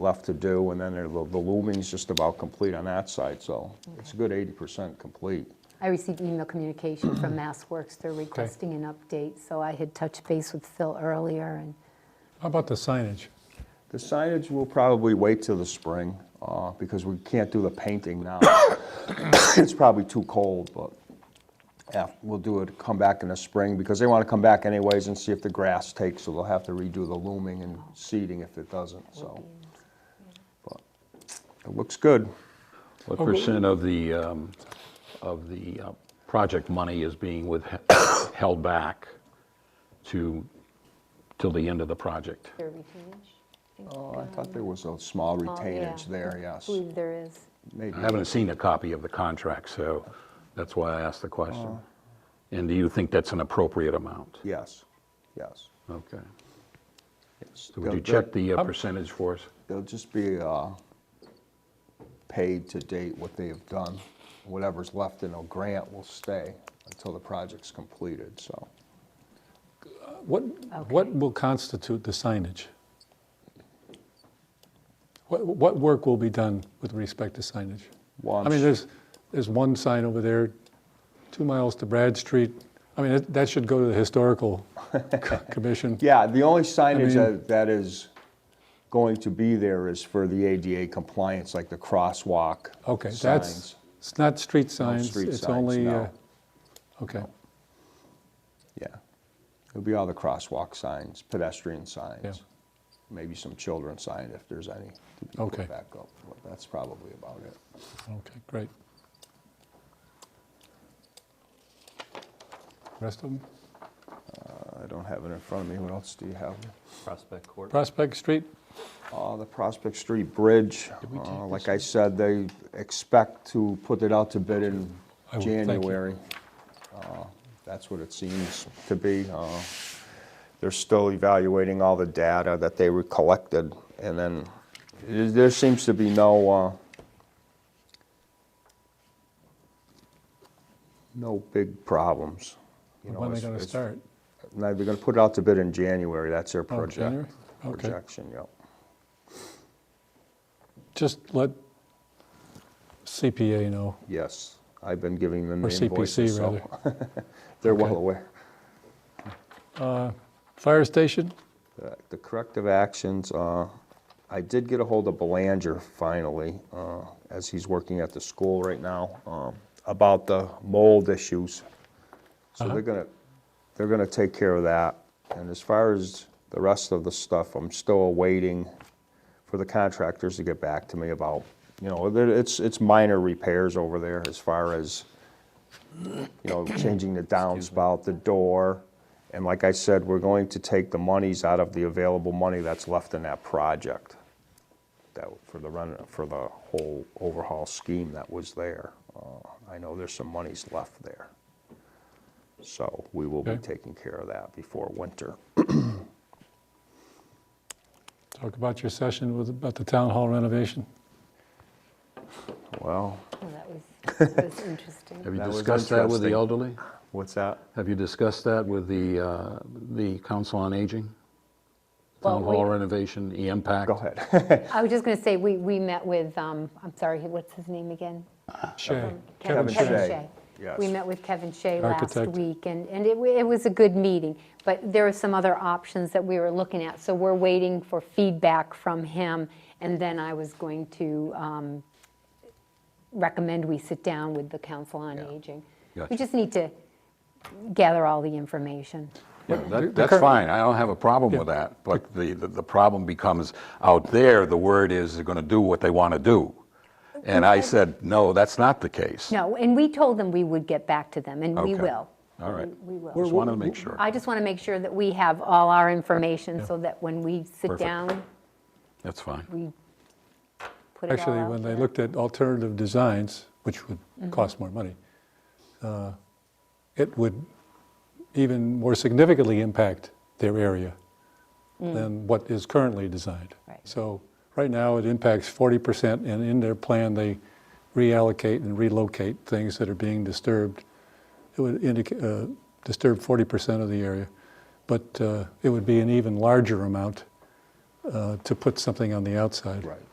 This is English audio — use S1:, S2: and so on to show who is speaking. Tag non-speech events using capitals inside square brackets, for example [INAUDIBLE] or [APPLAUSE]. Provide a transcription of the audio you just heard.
S1: left to do, and then there- the the looming's just about complete on that side, so it's a good 80% complete.
S2: I received email communication from MassWorks. They're requesting an update, so I had touched base with Phil earlier, and
S3: How about the signage?
S1: The signage will probably wait till the spring, uh, because we can't do the painting now. [COUGHS] It's probably too cold, but af- we'll do it, come back in the spring, because they want to come back anyways and see if the grass takes, so they'll have to redo the looming and seeding if it doesn't, so. But It looks good. Oh,
S4: What percent of the, um, of the uh, project money is being with, [COUGHS] held back to, till the end of the project?
S2: they're retainage.
S1: Oh, I thought there was a
S2: Oh,
S1: small retainage there,
S2: I
S1: yes.
S2: believe there is.
S1: Maybe.
S4: I haven't seen a copy of the contract, so that's why I asked the
S1: Oh.
S4: question. And do you think that's an appropriate amount?
S1: Yes, yes.
S4: Okay.
S1: yes.
S4: So would
S1: They'll-
S4: you check the uh, percentage for us?
S1: They'll just be uh, paid to date what they have done. Whatever's left in a grant will stay until the project's completed, so.
S3: What, what will constitute the signage? What, what work will be done with respect to signage? I mean,
S1: Once-
S3: there's, there's one sign over there, two miles to Brad Street. I mean, that- that should go to the
S1: [LAUGHS]
S3: historical co- commission.
S1: Yeah, the only signage
S3: mean-
S1: that- that is going to be there is for the ADA compliance, like the crosswalk
S3: Okay,
S1: signs.
S3: that's, it's not street signs,
S1: street
S3: it's
S1: signs,
S3: only, uh,
S1: no.
S3: okay,
S1: Yeah. It'll be all the crosswalk signs, pedestrian
S3: Yeah.
S1: signs, maybe some children's sign if there's any to be
S3: Okay.
S1: put back up. But That's probably about it.
S3: okay, great. Rest of them?
S1: Uh, I don't have it in front of me. What else do you have?
S5: Prospect Court.
S3: Prospect Street?
S1: Uh, The Prospect Street Bridge, uh, like I said, they expect to put it out to bid in
S3: I will, thank you.
S1: January. Uh, That's what it seems to be. Uh, They're still evaluating all the data that they were collected, and then there there seems to be no, uh, no big problems. You know,
S3: When are they
S1: it's-
S3: going to
S1: it's-
S3: start?
S1: No, they're gonna put it out to bid in January, that's their
S3: Oh, January?
S1: project,
S3: Okay.
S1: projection, yep.
S3: Just let CPA know,
S1: Yes, I've been giving them
S3: or
S1: the invoices,
S3: CPC rather.
S1: so [LAUGHS] they're well
S3: Okay.
S1: aware.
S3: Fire station?
S1: The- Uh, The corrective actions, uh, I did get a hold of Belanger finally, uh, as he's working at the school right now, um, about the mold issues. So
S3: Uh-huh.
S1: they're gonna, they're gonna take care of that. And as far as the rest of the stuff, I'm still awaiting for the contractors to get back to me about, you know, there- it's, it's minor repairs over there as far as, you know, changing the downspout, the door. And like I said, we're going to take the monies out of the available money that's left in that project. That, for the run, for the whole overhaul scheme that was there. Uh, I know there's some monies left there. So we will be
S3: Okay.
S1: taking care of that before winter.
S3: Talk about your session with, about the town hall renovation.
S1: Well,
S2: Well, Oh, that was,
S1: [LAUGHS]
S2: that was
S4: Have
S2: interesting.
S4: you
S1: That was
S4: discussed that with the
S1: interesting.
S4: elderly?
S1: what's that?
S4: Have you discussed that with the, uh, the Council on Aging?
S2: Well,
S4: Town
S2: we-
S4: hall renovation, the impact?
S1: Go ahead.
S2: I was just going to say, we, we met with, um, I'm sorry, what's his name again?
S3: Shay,
S1: Kevin
S3: Shea.
S1: Shea.
S2: We
S1: yes.
S2: met with Kevin Shea last
S3: Architect.
S2: week, and, and it, wa- it was a good meeting. But there were some other options that we were looking at, so we're waiting for feedback from him. And then I was going to um, recommend we sit down with the Council on Aging. We
S4: Gotcha.
S2: just need to gather all the information.
S4: Yeah,
S3: the
S4: that, that's
S3: current-
S4: fine, I don't have a problem with that, but the, the the problem becomes, out there, the word is they're gonna do what they wanna do. And I said, no, that's not the case.
S2: No, and we told them we would get back to them, and we
S4: Okay.
S2: will.
S4: All right.
S2: We we will.
S4: Just wanted to make sure.
S2: I just want to make sure that we have all our information so that when we sit
S4: Perfect.
S2: down,
S4: That's fine.
S2: we put it all
S3: Actually,
S2: out
S3: when they
S2: there. Mm-hmm.
S3: looked at alternative designs, which would cost more money, uh, it would even more significantly impact their area than what is currently designed.
S2: Mm. Right.
S3: So right now, it impacts 40%, and in their plan, they reallocate and relocate things that are being disturbed. It would indicate, uh, disturb 40% of the area, but uh, it would be an even larger amount uh, to put something on the
S1: [LAUGHS]
S3: outside.
S1: Right.